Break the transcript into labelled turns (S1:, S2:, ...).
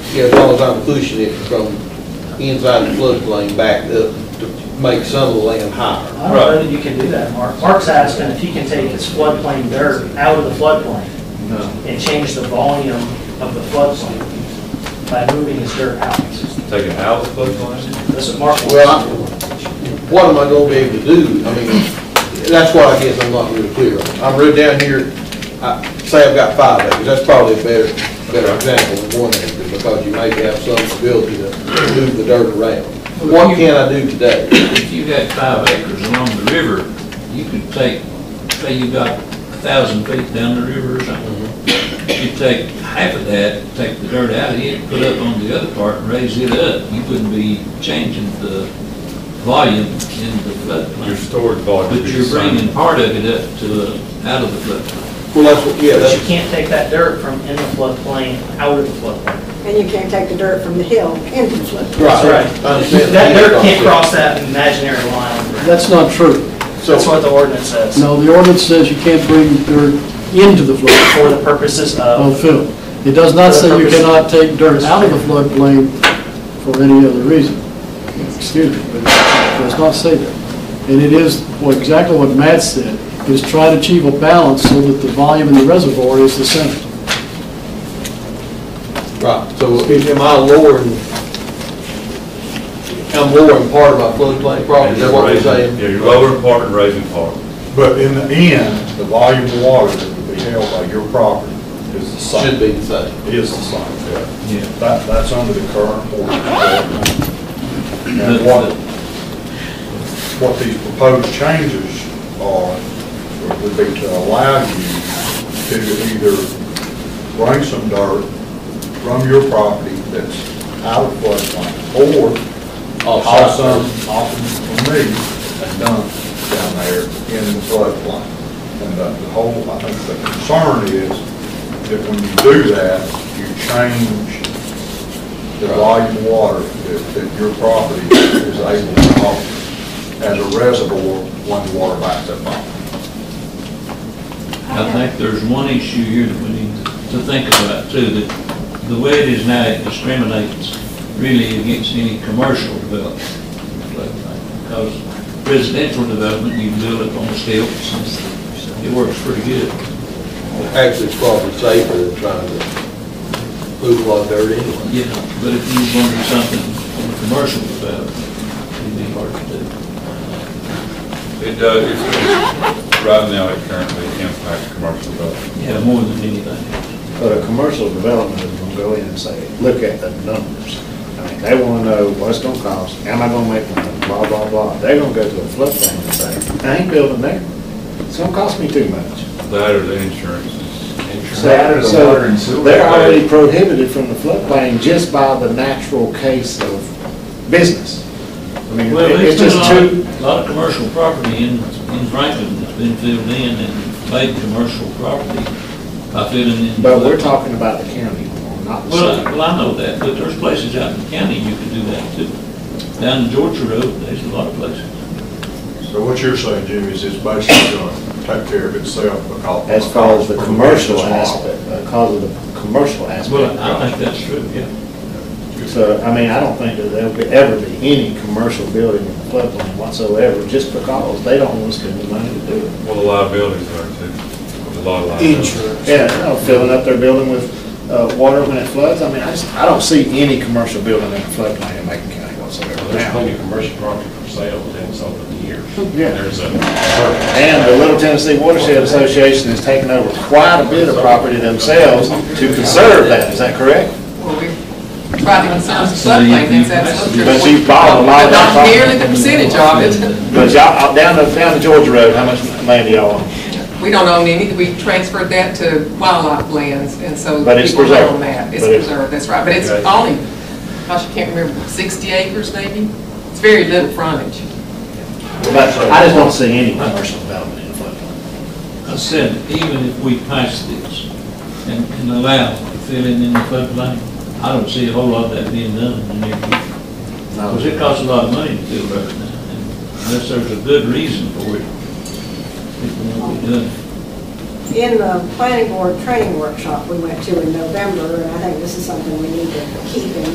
S1: Yeah, as long as I'm pushing it from inside the floodplain back up to make some of the land higher.
S2: I don't know that you can do that, Mark. Mark's asking if he can take his floodplain dirt out of the floodplain
S3: No,
S2: and change the volume of the floodplain by moving his dirt out.
S3: take it out of the floodplain?
S2: That's what Mark wants.
S1: Well, I- what am I gonna be able to do? I mean, that's what I guess I'm not really clear on. I'm real down here, I, say I've got five acres, that's probably a better, better example than one acre, because you may have some ability to move the dirt around. What can I do today?
S4: If you got five acres along the river, you could take, say you got a thousand feet down the river or something. You take half of that, take the dirt out of it, put up on the other part and raise it up. You wouldn't be changing the volume in the
S3: Your
S4: floodplain.
S3: storage volume would
S4: But
S3: be the
S4: you're
S3: same.
S4: bringing part of it up to, uh, out of the floodplain.
S1: Well, that's, what- yeah,
S2: But you
S1: that's,
S2: can't take that dirt from in the floodplain out of the floodplain.
S5: And you can't take the dirt from the hill into the flood.
S1: right, I
S2: That's
S1: understand.
S2: That dirt can't cross that imaginary line.
S6: That's not true.
S2: That's
S1: So,
S2: what the ordinance says,
S6: No, the ordinance says you can't bring dirt into the flood
S2: for the purposes
S6: on
S2: of,
S6: film. It does not say you cannot take dirt out of the floodplain for any other reason. Excuse me, but it does not say that. And it is, well, exactly what Matt said, is try to achieve a balance so that the volume in the reservoir is the same.
S1: right, so if- am I lowering, I'm lowering part of my floodplain property,
S3: And
S1: is
S3: you're
S1: that what you're
S3: raising-
S1: saying?
S3: Yeah, you're lowering part and raising part.
S7: But in the end, the volume of water that would be held by your property is the same.
S1: Should be the same.
S7: Is the same, yeah.
S4: Yeah.
S7: That, that's under the current ordinance. And what, what these proposed changes are, would be to allow you to either bring some dirt from your property that's out of floodplain, or haul
S1: Offside.
S7: some off from me and dump down there in the floodplain. And uh, the the whole, I think the concern is that when you do that, you change the volume of water that, that your property is able to hold as a reservoir when the water backs up on it.
S4: I think there's one issue here that we need to think about too, that the way it is now, it discriminates really against any commercial development. Because residential development, you build it on stilts, and it works pretty good.
S1: Actually, it's probably safer than trying to move a lot of dirt anyway.
S4: You know, but if you want to do something on a commercial development, it'd be hard to do.
S3: It does, it's, it's- right now, it currently impacts commercial development.
S4: Yeah, more than anything.
S8: But a commercial development is gonna go in and say, look at the numbers. I mean, they wanna know what's gonna cost, am I gonna make money, blah, blah, blah. They're gonna go to a floodplain and say, I ain't building there. It's gonna cost me too much.
S3: That or the insurance is.
S8: So- So, they're already prohibited from the floodplain just by the natural case of business. I mean,
S4: Well,
S8: it-
S4: there's
S8: it's
S4: been a
S8: just
S4: lot,
S8: too,
S4: of- lot of commercial property in, in Franklin that's been filled in and made commercial property by filling in.
S8: but we're talking about the county, not the
S4: Well,
S8: city.
S4: I- well, I know that, but there's places out in the county you can do that too. Down in Georgia Road, there's a lot of places.
S7: So what you're saying, Jimmy, is it's basically gonna take care of itself because.
S8: As far as the
S7: because
S8: commercial
S7: it's small.
S8: aspect, because of the commercial aspect.
S4: Well, I think that's true, yeah.
S8: So, I mean, I don't think that there'll be, ever be any commercial building in the floodplain whatsoever, just because they don't want to spend the money to do it.
S3: Well, the liabilities are too, There's a lot of liabilities.
S8: Yeah, you know, filling up their building with, uh, water when it floods, I mean, I just, I don't see any commercial building in the floodplain in Macon County whatsoever
S9: There's
S8: now.
S9: plenty of commercial property for sale within some of the years.
S8: Yeah.
S9: There's a, I
S8: And the Little Tennessee Watershed Association has taken over quite a bit of property themselves to conserve that, is that correct?
S10: Well, we tried to conserve the
S4: So you- you-
S10: floodplain, that's, that's. what you're-
S8: But you bought a lot of that
S10: Not
S8: property.
S10: nearly the percentage of it.
S8: But y'all, out- down to, down to Georgia Road, how much land do y'all own?
S10: We don't own any, we transferred that to wildlife lands, and so.
S8: But it's
S10: people
S8: preserved.
S10: own that. It's
S8: But it's-
S10: preserved, that's right, but it's
S8: Okay.
S10: only, gosh, I can't remember, 60 acres maybe? It's very little frontage.
S8: But I just don't see any commercial development in the floodplain.
S4: I said, even if we pass this and, and allow filling in the floodplain, I don't see a whole lot of that being done in the near future. Because it costs a lot of money to fill roads now, and unless there's a good reason for it, people won't be doing it.
S5: in the planning board training workshop we went to in November, and I think this is something we need to keep in